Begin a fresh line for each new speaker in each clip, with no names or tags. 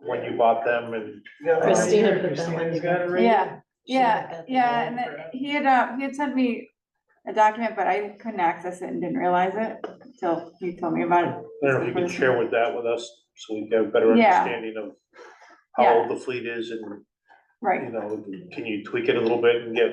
when you bought them and
Christina put that
Christina's
one
got it right.
Yeah, yeah,
got the
yeah,
wrong
and
crap.
it- he had, uh, he had sent me a document, but I couldn't access it and didn't realize it until he told me about it.
I don't know if you can share with that with us, so we get a better
Yeah.
understanding of how old the fleet is and, you
Right,
know, can you tweak it a little bit and get,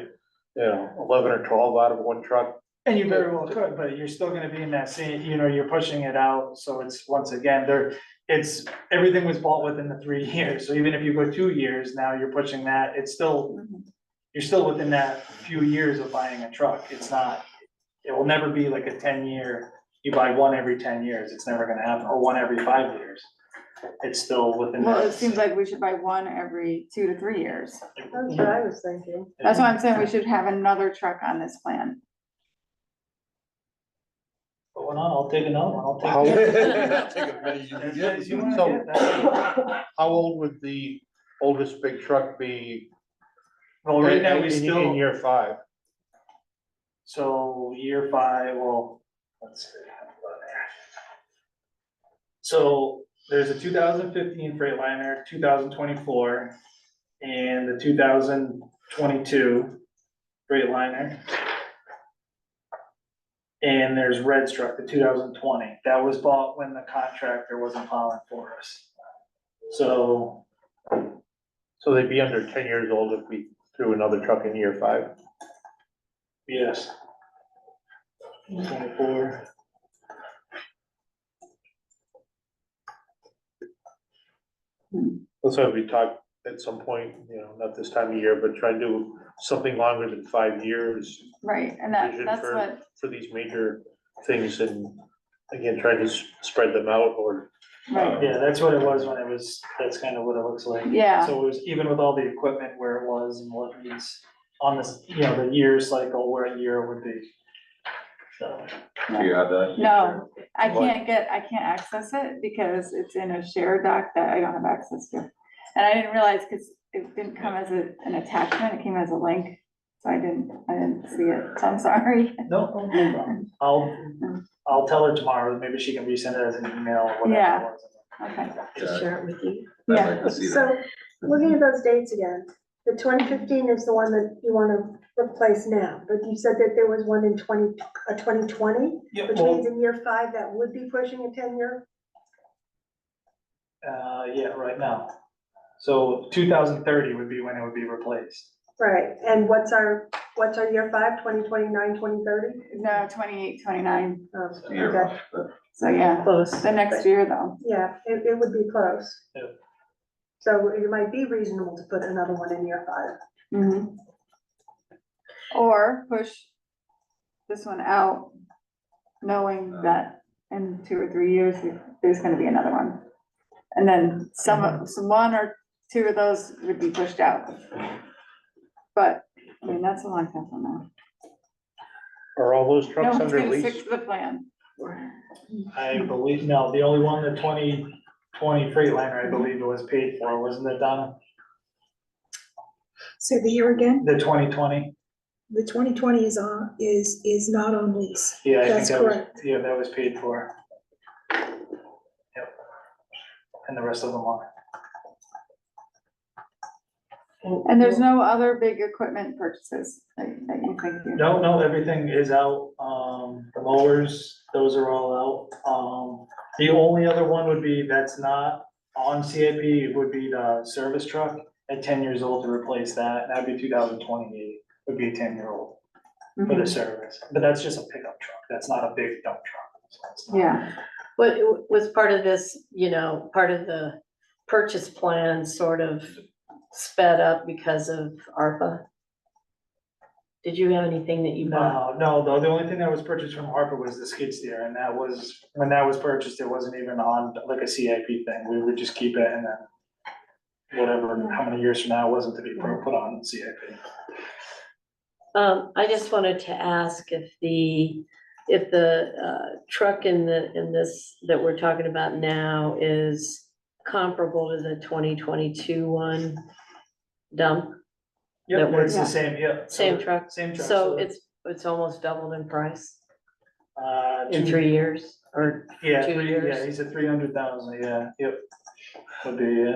you know, eleven or twelve out of one truck?
And you very well could, but you're still gonna be in that same, you know, you're pushing it out, so it's, once again, there, it's, everything was bought within the three years, so even if you go two years, now you're pushing that, it's still,
Mhm.
you're still within that few years of buying a truck, it's not, it will never be like a ten-year, you buy one every ten years, it's never gonna happen, or one every five years. It's still within.
well,
that-
it seems like we should buy one every two to three years.
That's what I was thinking.
That's why I'm saying we should have another truck on this plan.
Put one on, I'll take another one, I'll take.
How-
Take as many as you can
As
get.
many as you wanna
So-
get, that's-
How old would the oldest big truck be?
Well, right now,
in-
we
in-
still.
In year five,
So year five, well, let's see. So there's a two thousand fifteen Freightliner, two thousand twenty-four, and the two thousand twenty-two Freightliner. And there's Red Struck, the two thousand twenty, that was bought when the contractor wasn't filing for us. So,
so they'd be under ten years old if we threw another truck in year five.
yes. Twenty-four.
That's why we talked at some point, you know, not this time of year, but try to do something longer than five years.
Right, and that,
vision
that's
for-
what,
For these major things and again, trying to s- spread them out or
right,
Yeah, that's what it was when it was, that's kind of what it looks like.
Yeah.
So it was even with all the equipment where it was and what it's on this, you know, the year cycle where a year would be. So,
Do you have that?
No. I
What?
can't get, I can't access it because it's in a shared doc that I don't have access to. And I didn't realize, because it didn't come as a, an attachment, it came as a link, so I didn't, I didn't see it, so I'm sorry.
no, no problem. I'll, I'll tell her tomorrow, maybe she can resend it as an email or whatever.
Yeah.
it was.
Okay,
Just share it with you.
I'd
yeah.
like to see that.
So, looking at those dates again, the twenty fifteen is the one that you wanna replace now, but you said that there was one in twenty, a twenty twenty,
Yeah,
which
well,
means in year five, that would be pushing a ten year.
uh, yeah, right now. So two thousand thirty would be when it would be replaced.
Right, and what's our, what's our year five, twenty twenty nine, twenty thirty? Oh,
No, twenty-eight, twenty-nine,
Year,
Okay,
but
so yeah,
Close.
the next year though,
yeah, it, it would be close.
Yeah.
So it might be reasonable to put another one in year five.
Mhm. Or push this one out, knowing
Uh.
that in two or three years, there's gonna be another one. And then some,
Mm-hmm.
of- some one or two of those would be pushed out. But, I mean, that's a long time from now.
are all those
No
trucks
one's
under
gonna
lease?
stick to the plan.
I believe, no, the only one, the twenty twenty Freightliner, I believe it was paid for, wasn't it, Donna?
So the year again,
The twenty twenty?
the twenty twenty is on, is, is not on lease.
Yeah, I think
That's
that was,
correct.
yeah, that was paid for. Yep. And the rest of them are.
And there's no other big equipment purchases that that you think. you-
No, no, everything is out, um, the mowers, those are all out, um, the only other one would be, that's not on CIP, would be the service truck at ten years old to replace that, that'd be two thousand twenty-eight, would be a ten-year-old for
Mm-hmm.
the
Mhm.
service, but that's just a pickup truck, that's not a big dump truck. so it's not-
Yeah.
What, was part of this, you know, part of the purchase plan sort of sped up because of ARPA? Did you have anything that you bought?
No, no, the, the only thing that was purchased from Harper was the skid steer, and that was, when that was purchased, it wasn't even on like a CIP thing, we would just keep it and then whatever, how many years from now, it wasn't to be put put on CIP.
Um, I just wanted to ask if the, if the, uh, truck in the, in this, that we're talking about now is comparable to the twenty twenty-two one dump, That
Yep, it's
works.
the same, yep. so
same
the-
truck?
Same truck.
So
the-
it's, it's almost doubled in price
Uh,
in
two-
three years or
yeah,
two
three-
years.
Yeah, he said three hundred thousand, yeah, yep. Would be, yeah.